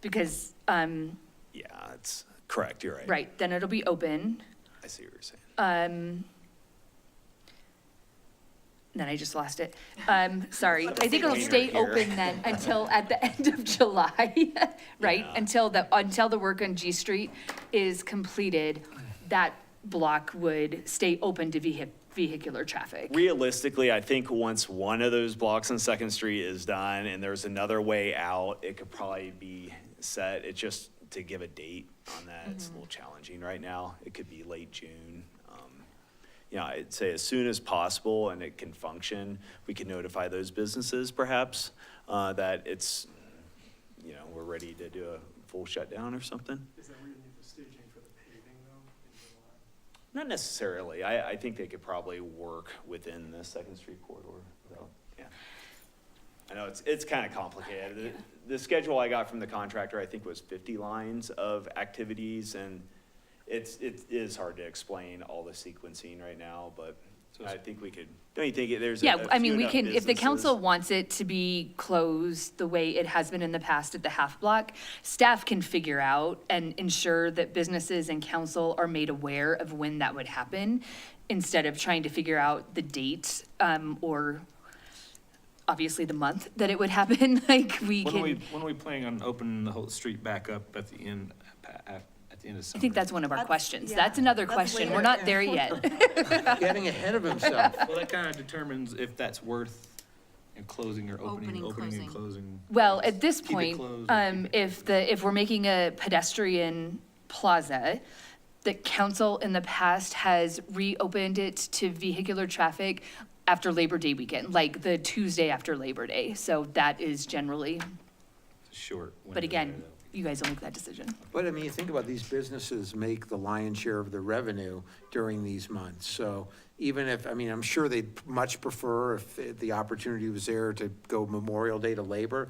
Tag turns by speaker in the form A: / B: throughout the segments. A: because, um,
B: Yeah, it's correct. You're right.
A: right, then it'll be open.
B: I see what you're saying.
A: Um, then I just lost it. Um, sorry. I think it'll
B: Later
A: stay
B: here.
A: open then until at the end of July, right?
B: Yeah.
A: Until the, until the work on G Street is completed, that block would stay open to vehi- vehicular traffic.
B: Realistically, I think once one of those blocks on Second Street is done and there's another way out, it could probably be set. It's just to give a date on that, it's a little challenging right now. It could be late June. Um, You know, I'd say as soon as possible and it can function, we can notify those businesses perhaps uh, that it's, you know, we're ready to do a full shutdown or something.
C: Is that where you need the staging for the paving though, in July?
B: Not necessarily. I, I think they could probably work within the Second Street corridor, though, yeah. I know, it's, it's kind of complicated. The- The schedule I got from the contractor, I think, was fifty lines of activities, and it's, it is hard to explain all the sequencing right now, but I think we could, don't you think it- there's a
A: Yeah,
B: a
A: I
B: few
A: mean, we
B: enough
A: can, if the council
B: businesses-
A: wants it to be closed the way it has been in the past at the half block, staff can figure out and ensure that businesses and council are made aware of when that would happen instead of trying to figure out the date, um, or obviously the month that it would happen, like we
D: When are we,
A: can,
D: when are we planning on opening the whole street back up at the end, at, at the end of summer?
A: I think that's one of our
E: That's-
A: questions.
E: yeah,
A: That's another
E: that's
A: question. We're
E: later.
A: not there yet.
F: Getting ahead of himself.
D: Well, that kind of determines if that's worth you know, closing or opening,
E: Opening,
D: opening and closing.
A: Well, at this
D: Keep it
A: point,
D: closed or keep
A: um,
D: it
A: if the, if we're making a pedestrian plaza, the council in the past has reopened it to vehicular traffic after Labor Day weekend, like the Tuesday after Labor Day. So that is generally,
D: Short.
A: but again, you guys will make that decision.
F: But I mean, you think about these businesses make the lion's share of the revenue during these months. So even if, I mean, I'm sure they'd much prefer if the opportunity was there to go Memorial Day to Labor.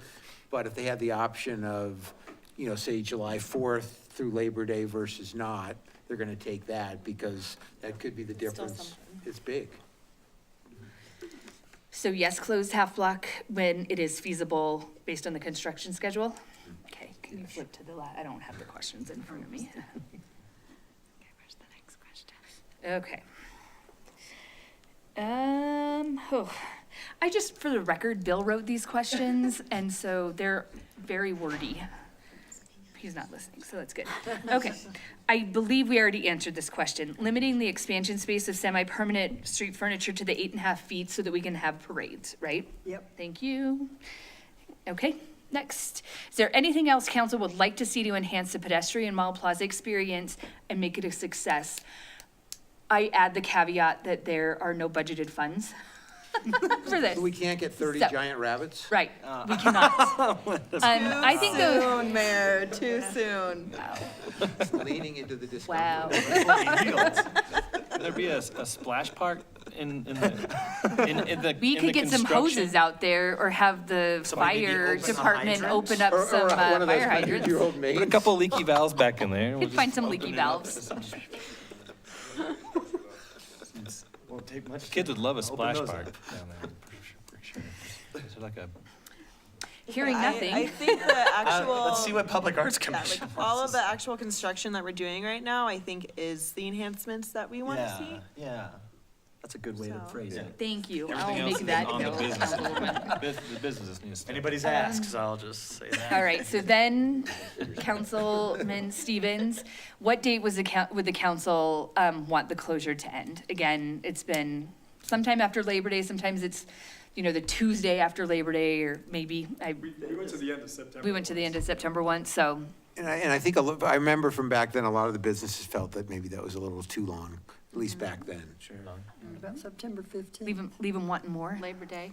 F: But if they had the option of, you know, say July 4th through Labor Day versus not, they're going to take that because that could be the difference. It's big.
A: So yes, close half block when it is feasible based on the construction schedule? Okay, can you flip to the la, I don't have the questions in front of me. Okay. Um, oh, I just, for the record, Bill wrote these questions, and so they're very wordy. He's not listening, so that's good. Okay. I believe we already answered this question. Limiting the expansion space of semi-permanent street furniture to the eight and a half feet so that we can have parades, right?
E: Yep.
A: Thank you. Okay, next. Is there anything else council would like to see to enhance the pedestrian mall plaza experience and make it a success? I add the caveat that there are no budgeted funds for this.
F: So we can't get 30
A: So-
F: giant rabbits?
A: Right, we cannot. Um, I think the.
E: Soon, Mayor, too soon.
F: Leaning into the discomfort.
A: Wow.
D: There'd be a, a splash park in, in the, in, in the.
A: We
D: in
A: could
D: the
A: get some
D: construction?
A: hoses out there or have the
D: Somebody maybe
A: fire
D: open some
A: department
D: hydrants?
A: open up
F: Or- or
A: some uh,
F: one of those
A: fire hydrants.
F: 100-year-old maids.
D: Put a couple leaky valves back in there.
A: Could find some leaky valves.
B: Won't take much.
D: Kids would love a splash
B: those
D: park down there. for sure. Is there like a
A: Hearing
E: I- I
A: nothing,
E: think the actual.
G: Uh, Let's see what Public Arts
E: that,
G: Commission.
E: like, All of the actual construction that we're doing right now, I think is the enhancements that we want to
G: Yeah,
E: see.
G: yeah. That's a good way to
E: So-
G: phrase it.
A: thank you.
D: Everything
A: I'll
D: else
A: make
D: is
A: that
D: on the
A: note. Uh,
D: business. Bus- The business needs to.
G: Anybody's asked, so I'll just say that.
A: All right, so then, Councilman Stevens, what date was the, coun- would the council um, want the closure to end? Again, it's been sometime after Labor Day, sometimes it's, you know, the Tuesday after Labor Day, or maybe, I,
C: We went to the end of September.
A: we went to the end of September once, so.
F: And I, and I think, a lo- I remember from back then, a lot of the businesses felt that maybe that was a little too long, at least back then.
G: Sure. All
H: About September 15th.
A: Leave them, leave them wanting more. Labor Day.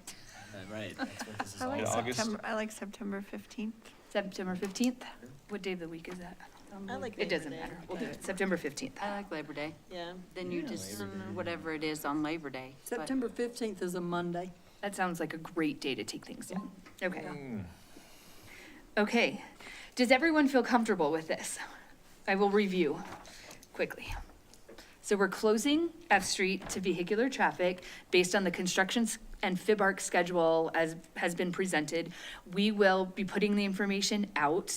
G: Right, that's what this is
H: I
G: all
H: like
D: Yeah,
G: about.
D: August.
H: September, I like September 15th.
A: September 15th? What day of the week is that?
E: I like
A: It
E: Labor
A: doesn't
E: Day,
A: matter. We'll do
E: but-
A: it September 15th.
I: I like Labor Day.
E: Yeah.
I: Then you just, whatever it is on Labor Day. but-
H: September 15th is a Monday.
A: That sounds like a great day to take things down. Okay. Okay. Does everyone feel comfortable with this? I will review quickly. So we're closing F Street to vehicular traffic based on the construction s- and FIBARC schedule as has been presented. We will be putting the information out